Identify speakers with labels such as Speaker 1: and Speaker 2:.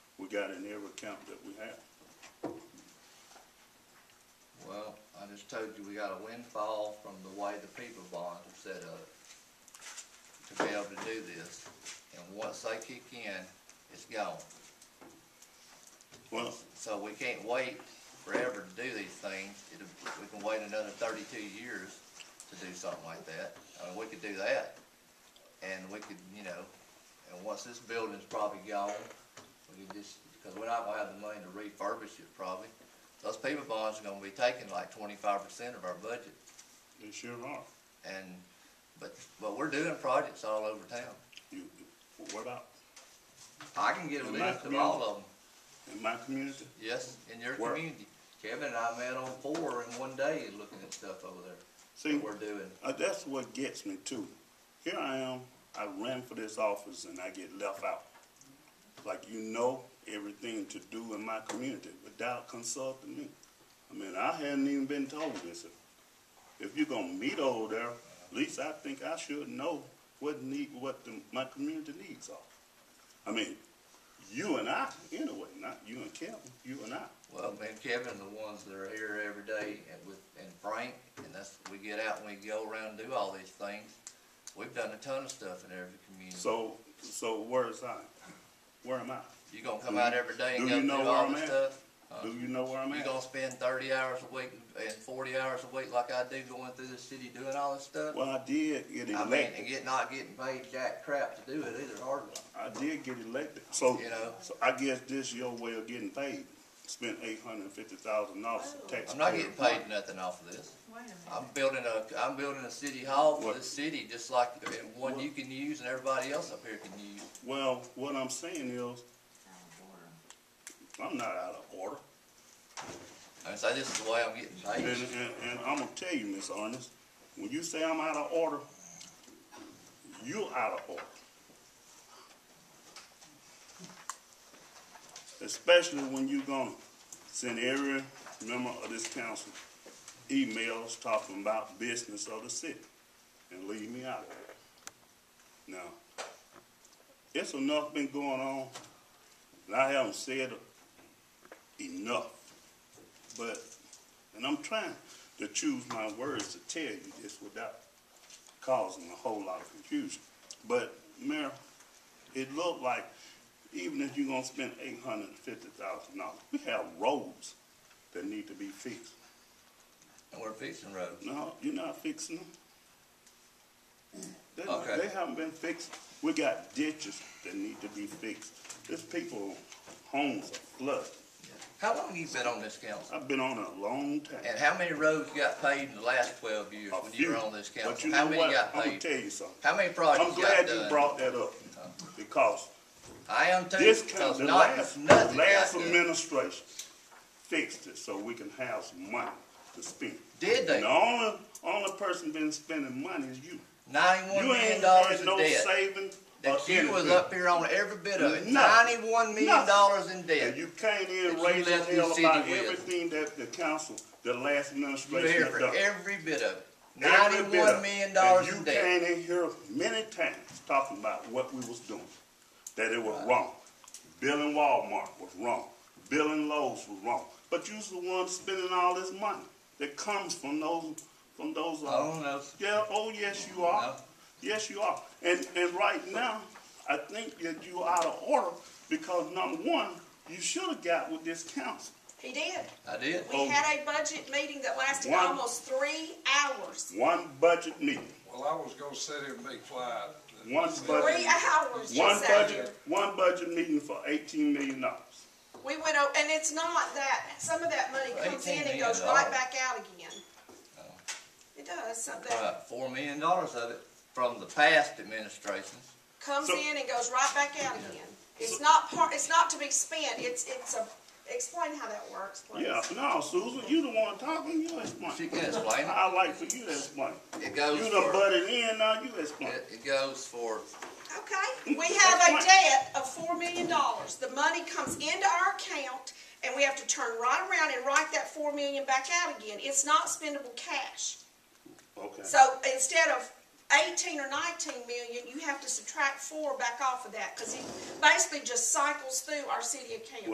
Speaker 1: got in every account that we have.
Speaker 2: Well, I just told you, we got a windfall from the way the people bond is set up to be able to do this. And once they kick in, it's gone.
Speaker 1: Well,
Speaker 2: So we can't wait forever to do these things. It'll- We can wait another thirty-two years to do something like that. I mean, we could do that. And we could, you know, and once this building's probably gone, we could just, because we're not gonna have the money to refurbish it probably. Those people bonds are gonna be taking like twenty-five percent of our budget.
Speaker 1: they sure are.
Speaker 2: And, but, but we're doing projects all over town.
Speaker 1: You, what about
Speaker 2: I can get a
Speaker 1: In my
Speaker 2: list of all
Speaker 1: community?
Speaker 2: of them.
Speaker 1: in my community?
Speaker 2: Yes, in your
Speaker 1: Where?
Speaker 2: community. Kevin and I met on four in one day looking at stuff over there,
Speaker 1: See,
Speaker 2: what we're doing.
Speaker 1: uh, that's what gets me too. Here I am, I ran for this office and I get left out. Like you know everything to do in my community without consulting me. I mean, I hadn't even been told this. If you're gonna meet over there, at least I think I should know what need, what the, my community needs are. I mean, you and I, anyway, not you and Kevin, you and I.
Speaker 2: Well, me and Kevin are the ones that are here every day and with, and Frank, and that's, we get out and we go around and do all these things. We've done a ton of stuff in every community.
Speaker 1: So, so where's I? Where am I?
Speaker 2: You gonna come out every day and
Speaker 1: Do
Speaker 2: go
Speaker 1: you know
Speaker 2: through
Speaker 1: where
Speaker 2: all
Speaker 1: I'm
Speaker 2: this
Speaker 1: at?
Speaker 2: stuff? Huh?
Speaker 1: Do you know where I'm
Speaker 2: You
Speaker 1: at?
Speaker 2: gonna spend thirty hours a week and forty hours a week like I do going through the city doing all this stuff?
Speaker 1: Well, I did get
Speaker 2: I mean, and
Speaker 1: elected.
Speaker 2: get, not getting paid jack crap to do it either, hardly.
Speaker 1: I did get elected. So,
Speaker 2: You know.
Speaker 1: so I guess this your way of getting paid. Spent eight hundred and fifty thousand dollars in taxpayer.
Speaker 2: I'm not getting paid nothing off of this.
Speaker 3: Wait a minute.
Speaker 2: I'm building a, I'm building a city hall for
Speaker 1: What?
Speaker 2: this city, just like, and one you can use and everybody else up here can use.
Speaker 1: Well, what I'm saying is,
Speaker 3: Out of order.
Speaker 1: I'm not out of order.
Speaker 2: I so this is the way I'm getting
Speaker 1: And,
Speaker 2: paid.
Speaker 1: and, and I'm gonna tell you, Miss Ernest, when you say I'm out of order, you're out of order. Especially when you gonna send every member of this council emails talking about business of the city and leave me out of it. Now, it's enough been going on, and I haven't said enough, but and I'm trying to choose my words to tell you this without causing a whole lot of confusion. But, Mayor, it looked like even if you're gonna spend eight hundred and fifty thousand dollars, we have roads that need to be fixed.
Speaker 2: And we're fixing roads.
Speaker 1: No, you're not fixing them. They,
Speaker 2: Okay.
Speaker 1: they haven't been fixed. We got ditches that need to be fixed. There's people, homes are flooded.
Speaker 2: How long you been on this council?
Speaker 1: I've been on it a long time.
Speaker 2: And how many roads you got paid in the last twelve years
Speaker 1: A
Speaker 2: when you were
Speaker 1: few.
Speaker 2: on this
Speaker 1: But you
Speaker 2: council?
Speaker 1: know
Speaker 2: How many
Speaker 1: what?
Speaker 2: got
Speaker 1: I'm gonna
Speaker 2: paid?
Speaker 1: tell you something.
Speaker 2: How many
Speaker 1: I'm
Speaker 2: projects
Speaker 1: glad
Speaker 2: got
Speaker 1: you
Speaker 2: done?
Speaker 1: brought that up, because
Speaker 2: I am too,
Speaker 1: this kind,
Speaker 2: because
Speaker 1: the
Speaker 2: not,
Speaker 1: last,
Speaker 2: nothing
Speaker 1: the
Speaker 2: got
Speaker 1: last
Speaker 2: done.
Speaker 1: administration fixed it so we can have some money to spend.
Speaker 2: Did
Speaker 1: And the
Speaker 2: they?
Speaker 1: only, only person been spending money is you.
Speaker 2: Ninety-one
Speaker 1: You
Speaker 2: million
Speaker 1: ain't
Speaker 2: dollars
Speaker 1: had
Speaker 2: in
Speaker 1: no
Speaker 2: debt.
Speaker 1: saving or
Speaker 2: That you was
Speaker 1: anything.
Speaker 2: up here on every bit of it,
Speaker 1: Nothing.
Speaker 2: ninety-one million dollars
Speaker 1: Nothing.
Speaker 2: in
Speaker 1: And
Speaker 2: debt.
Speaker 1: you came
Speaker 2: That
Speaker 1: in
Speaker 2: you
Speaker 1: raising
Speaker 2: left this
Speaker 1: hell
Speaker 2: city
Speaker 1: about
Speaker 2: with.
Speaker 1: everything that the council, the last
Speaker 2: You were here
Speaker 1: administration had
Speaker 2: for
Speaker 1: done.
Speaker 2: every bit of it.
Speaker 1: Every bit of
Speaker 2: Ninety-one
Speaker 1: it.
Speaker 2: million dollars
Speaker 1: And
Speaker 2: in debt.
Speaker 1: You came in here many times talking about what we was doing, that it was wrong. Building Walmart was wrong. Building Lowe's was wrong. But you's the one spending all this money that comes from those, from those. uh,
Speaker 2: Oh, no.
Speaker 1: Yeah, oh, yes, you are.
Speaker 2: No.
Speaker 1: Yes, you are. And, and right now, I think that you out of order because number one, you should have got with this council.
Speaker 3: He did.
Speaker 2: I did.
Speaker 3: We
Speaker 1: Oh.
Speaker 3: had a budget meeting that lasted
Speaker 1: One.
Speaker 3: almost three hours.
Speaker 1: One budget meeting,
Speaker 4: Well, I was gonna sit here and be quiet.
Speaker 1: one budget.
Speaker 3: Three hours
Speaker 1: One
Speaker 3: just out here.
Speaker 1: budget, one budget meeting for eighteen million dollars.
Speaker 3: We went over, and it's not that, some of that money comes in and goes right back out again. It does, some that
Speaker 2: About four million dollars of it from the past administration.
Speaker 3: comes
Speaker 1: So-
Speaker 3: in and goes right back out again. It's not part, it's not to be spent, it's, it's a, explain how that works, please.
Speaker 1: Yeah, no, Susan, you the one talking, you
Speaker 2: She
Speaker 1: explain.
Speaker 2: can explain it.
Speaker 1: I like for you to explain.
Speaker 2: It
Speaker 1: You
Speaker 2: goes
Speaker 1: done
Speaker 2: for,
Speaker 1: butted in, now you explain.
Speaker 2: it, it goes for,
Speaker 3: Okay, we have a
Speaker 1: That's fine.
Speaker 3: debt of four million dollars. The money comes into our account and we have to turn right around and write that four million back out again. It's not spendable cash.
Speaker 1: Okay.
Speaker 3: So instead of eighteen or nineteen million, you have to subtract four back off of that, cause it basically just cycles through our city account.